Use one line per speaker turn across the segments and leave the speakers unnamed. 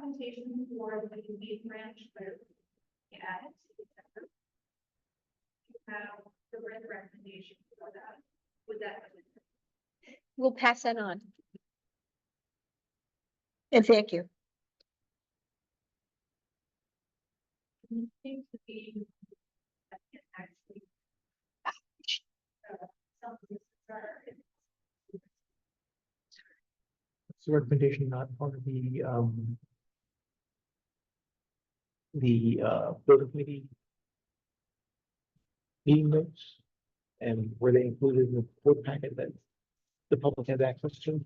documentation for the Wheat Ranch Road. Add. Have the red recommendation for that, would that?
We'll pass that on. And thank you.
Seems to be. that can Actually. uh, something that's-
So recommendation not part of the, um. The, uh, building committee. Meeting notes, and were they included in the board packet that the public had access to?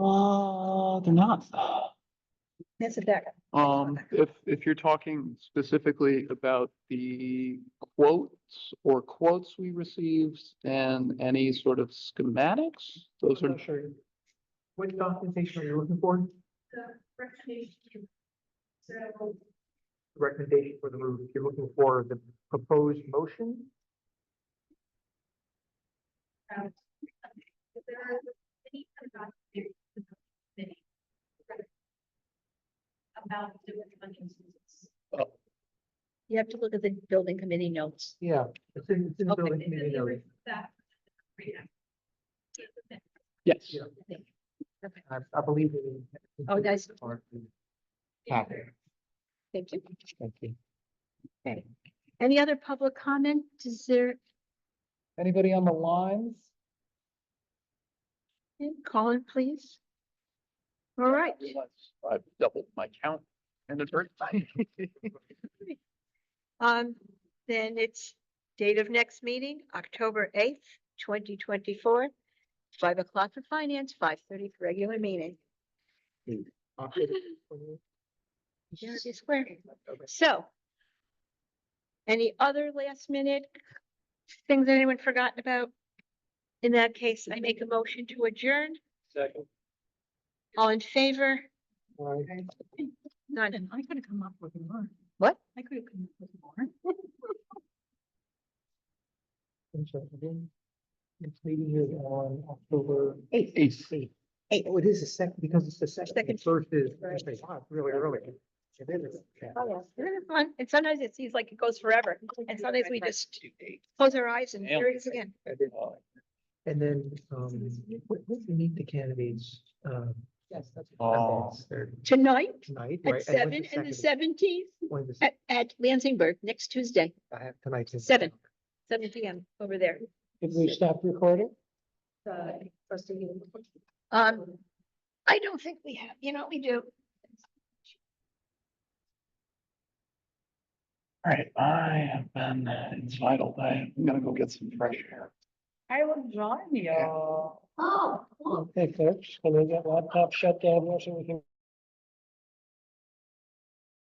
Uh, they're not.
That's a backup.
Um, if, if you're talking specifically about the quotes or quotes we received and any sort of schematics, those are,
sure. What documentation are you looking for?
The recommendation. So.
Recommendation for the roof, you're looking for the proposed motion?
um, If there are any kind of documents in the committee. About different funding sources.
You have to look at the building committee notes.
Yeah, it's in, it's in the
Okay.
building committee notes.
That. yeah. Yeah.
yes.
Yeah. I, I believe. it-
Oh, nice.
Part of the Packet,
Thank you.
thank you.
Any other public comment? Is there,
Anybody on the lines?
call in please? All right,
I've doubled my count and it's hurt.
um, then it's date of next meeting, October eighth, twenty twenty-four. Five o'clock for finance, five thirty for regular meeting.
October 28th.
Unity Square.
Okay.
So. Any other last minute things that anyone forgotten about? In that case, I make a motion to adjourn.
Second.
All in favor?
All right.
None.
I could have come up with more.
What?
I could have come up with more.
I'm sorry, again. It's meeting is on October.
Eighth.
Eighth. Oh, it is the second, because it's the second. The
Second.
First is,
Right. Oh,
actually, wow, it's really early. It is. yeah.
Isn't it fun? And sometimes it seems like it goes forever. And sometimes we just close our eyes and here it is again.
I did. And then, um, we, we need the candidates, um. Yes, that's.
Oh.
Tonight
Tonight, right?
at
and when's
seven and the
second?
seventeenth
When the,
at, at Lansingburg next Tuesday,
I have tonight's. in-
seven. seven P M over there.
Did we stop recording?
Um, I don't think we have, you know, we do.
All right, I have been entitled. I'm gonna go get some fresh air.
I will join you.
Okay, folks, when we got laptop shut down, so we can